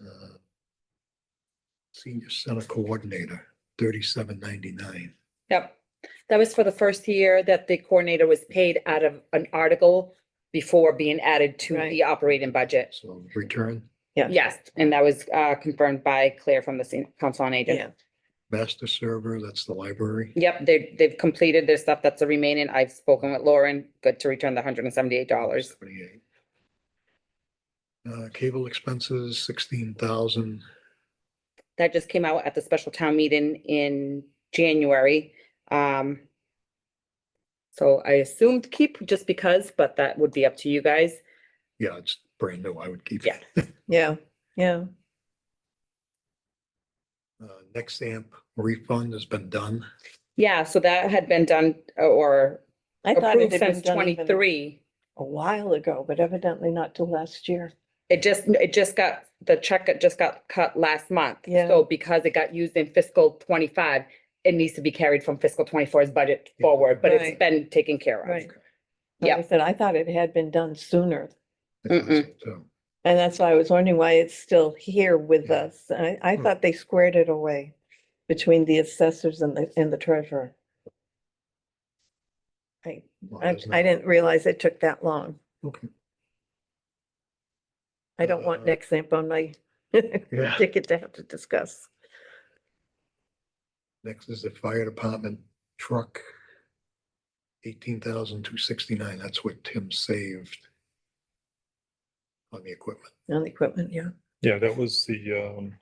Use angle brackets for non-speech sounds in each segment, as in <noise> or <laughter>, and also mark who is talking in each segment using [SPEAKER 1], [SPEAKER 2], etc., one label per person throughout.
[SPEAKER 1] uh, Senior Center Coordinator, thirty-seven ninety-nine.
[SPEAKER 2] Yep. That was for the first year that the coordinator was paid out of an article before being added to
[SPEAKER 3] Right.
[SPEAKER 2] the operating budget.
[SPEAKER 1] So return,
[SPEAKER 2] Yes, and that was uh, confirmed by Claire from the Sen- Council on Aging.
[SPEAKER 3] Yeah,
[SPEAKER 1] master server, that's the library.
[SPEAKER 2] Yep, they, they've completed their stuff that's the remaining. I've spoken with Lauren. Good to return the hundred and seventy-eight dollars.
[SPEAKER 1] 78. Uh, cable expenses, sixteen thousand.
[SPEAKER 2] That just came out at the special town meeting in January. Um, so I assumed keep just because, but that would be up to you guys.
[SPEAKER 1] Yeah, it's brand new. I would keep.
[SPEAKER 2] Yeah.
[SPEAKER 1] it.
[SPEAKER 3] yeah, yeah.
[SPEAKER 1] <laughs> Uh, next amp refund has been done.
[SPEAKER 2] Yeah, so that had been done uh, or
[SPEAKER 3] I thought it
[SPEAKER 2] approved
[SPEAKER 3] had
[SPEAKER 2] since
[SPEAKER 3] been done even
[SPEAKER 2] twenty-three.
[SPEAKER 3] a while ago, but evidently not till last year.
[SPEAKER 2] It just, it just got, the check got- just got cut last month.
[SPEAKER 3] Yeah.
[SPEAKER 2] So because it got used in fiscal twenty-five, it needs to be carried from fiscal 24's budget
[SPEAKER 1] Yeah.
[SPEAKER 2] forward, but it's
[SPEAKER 3] Right.
[SPEAKER 2] been taken care of.
[SPEAKER 3] Right.
[SPEAKER 2] Yeah.
[SPEAKER 3] Like I said, I thought it had been done sooner.
[SPEAKER 1] I think
[SPEAKER 2] Mm-mm.
[SPEAKER 1] that's it, too.
[SPEAKER 3] And that's why I was wondering why it's still here with
[SPEAKER 1] Yeah.
[SPEAKER 3] us. And I, I
[SPEAKER 1] Hmm.
[SPEAKER 3] thought they squared it away between the assessors and the, and the treasurer. I,
[SPEAKER 1] Well,
[SPEAKER 3] I,
[SPEAKER 1] there's no-
[SPEAKER 3] I didn't realize it took that long.
[SPEAKER 1] Okay.
[SPEAKER 3] I don't want
[SPEAKER 1] Uh,
[SPEAKER 3] next amp on my <laughs>
[SPEAKER 1] Yeah.
[SPEAKER 3] ticket to have to discuss.
[SPEAKER 1] Next is the fire department truck. Eighteen thousand two sixty-nine, that's what Tim saved. On the equipment,
[SPEAKER 3] On the equipment, yeah.
[SPEAKER 4] Yeah, that was the, um,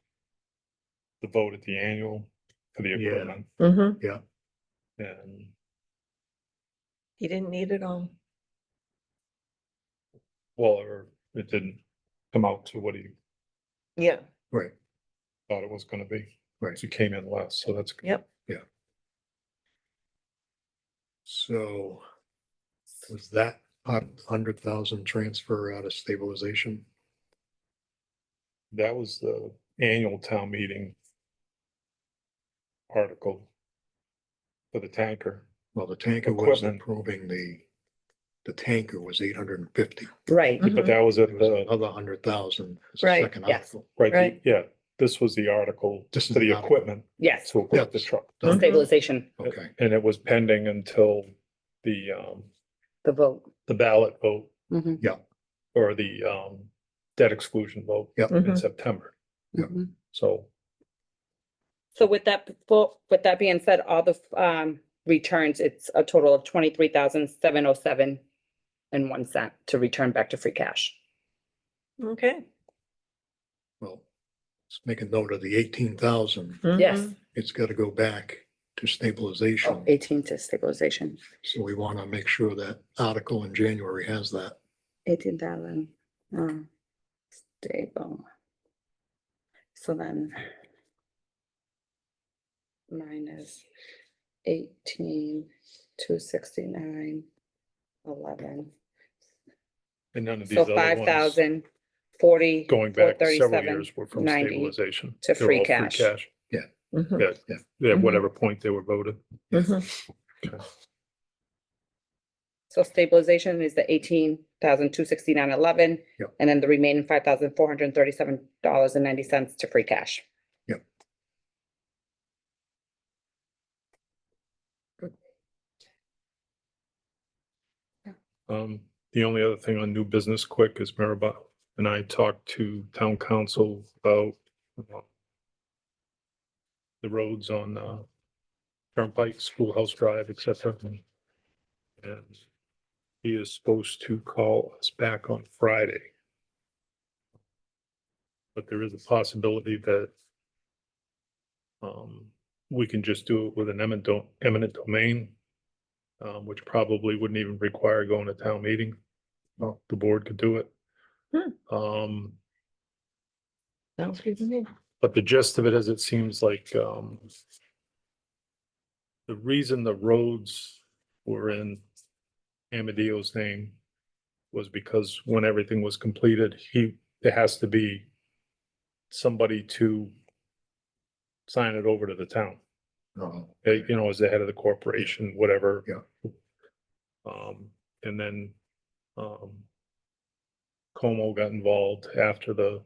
[SPEAKER 4] the vote at the annual for the
[SPEAKER 1] Yeah.
[SPEAKER 4] equipment
[SPEAKER 3] Mm-hmm.
[SPEAKER 4] and
[SPEAKER 3] He didn't need it all.
[SPEAKER 4] well, or it didn't come out to what he
[SPEAKER 3] Yeah.
[SPEAKER 1] right,
[SPEAKER 4] thought it was gonna be.
[SPEAKER 1] Right.
[SPEAKER 4] So It came in less, so that's. good.
[SPEAKER 3] Yep.
[SPEAKER 1] so. Was that hundred thousand transfer out of stabilization?
[SPEAKER 4] That was the annual town meeting article for the tanker.
[SPEAKER 1] Well, the tanker was
[SPEAKER 4] Equipment.
[SPEAKER 1] improving the. The tanker was eight hundred and fifty,
[SPEAKER 2] Right.
[SPEAKER 4] But
[SPEAKER 3] Mm-hmm.
[SPEAKER 4] that was
[SPEAKER 1] it
[SPEAKER 4] at
[SPEAKER 1] was
[SPEAKER 4] the,
[SPEAKER 1] another hundred thousand.
[SPEAKER 3] Right,
[SPEAKER 2] yes.
[SPEAKER 4] right, the-
[SPEAKER 3] Right.
[SPEAKER 4] yeah, this was the article
[SPEAKER 1] This is
[SPEAKER 4] for the
[SPEAKER 1] the article.
[SPEAKER 4] equipment
[SPEAKER 2] Yes,
[SPEAKER 4] to equip the
[SPEAKER 1] Yes.
[SPEAKER 4] truck.
[SPEAKER 3] Mhm.
[SPEAKER 2] stabilization,
[SPEAKER 1] Okay,
[SPEAKER 4] And it was pending until the, um,
[SPEAKER 2] the vote.
[SPEAKER 4] the ballot vote
[SPEAKER 3] Mm-hmm.
[SPEAKER 2] Mhm,
[SPEAKER 4] or the um debt exclusion vote
[SPEAKER 1] Yep.
[SPEAKER 4] in
[SPEAKER 2] Mm-hmm.
[SPEAKER 3] Mhm.
[SPEAKER 4] September.
[SPEAKER 1] Yep.
[SPEAKER 3] Mm-hmm.
[SPEAKER 2] mhm.
[SPEAKER 4] So
[SPEAKER 2] So with that, befo- with that being said, all the um returns, it's a total of twenty-three thousand seven oh seven and one cent to return back to free cash.
[SPEAKER 3] Okay.
[SPEAKER 1] well, let's make a note of the eighteen thousand,
[SPEAKER 3] Mm-hmm.
[SPEAKER 2] Yes, Oh,
[SPEAKER 1] it's gotta go back to stabilization.
[SPEAKER 2] eighteen to stabilization,
[SPEAKER 1] So we want to make sure that article in January has that.
[SPEAKER 2] eighteen thousand. um, Stable. So then. Minus eighteen, two sixty-nine, eleven.
[SPEAKER 4] and none of these
[SPEAKER 2] So
[SPEAKER 4] other
[SPEAKER 2] five
[SPEAKER 4] ones
[SPEAKER 2] thousand forty.
[SPEAKER 4] going back several
[SPEAKER 2] 437.
[SPEAKER 4] years were from
[SPEAKER 2] 90
[SPEAKER 4] stabilization.
[SPEAKER 2] to
[SPEAKER 4] They were
[SPEAKER 2] free
[SPEAKER 4] all
[SPEAKER 2] cash. Mm-hmm.
[SPEAKER 3] Mhm.
[SPEAKER 4] Yeah,
[SPEAKER 1] Yeah.
[SPEAKER 4] yeah,
[SPEAKER 3] Mhm.
[SPEAKER 4] whatever point they were voted.
[SPEAKER 3] Mhm.
[SPEAKER 2] So stabilization is the eighteen thousand two sixty-nine eleven.
[SPEAKER 1] Yep.
[SPEAKER 2] And then the remaining five thousand four hundred and thirty-seven dollars and ninety cents to free cash.
[SPEAKER 4] Um, the only other thing on new business quick is Maribel and I talked to town council about uh, the roads on uh Turnpike, Schoolhouse Drive, et cetera. And he is supposed to call us back on Friday. But there is a possibility that um, we can just do it with an eminent do- eminent domain um, which probably wouldn't even require going to town meeting.
[SPEAKER 1] Oh.
[SPEAKER 4] The board could do it. Um,
[SPEAKER 3] Sounds good to me.
[SPEAKER 4] but the gist of it is, it seems like, um, the reason the roads were in Amadeo's name was because when everything was completed, he, there has to be somebody to sign it over to the town.
[SPEAKER 1] Uh,
[SPEAKER 4] uh, you know, as the head of the corporation, whatever. Yeah. Um, and then, um, Como got involved after the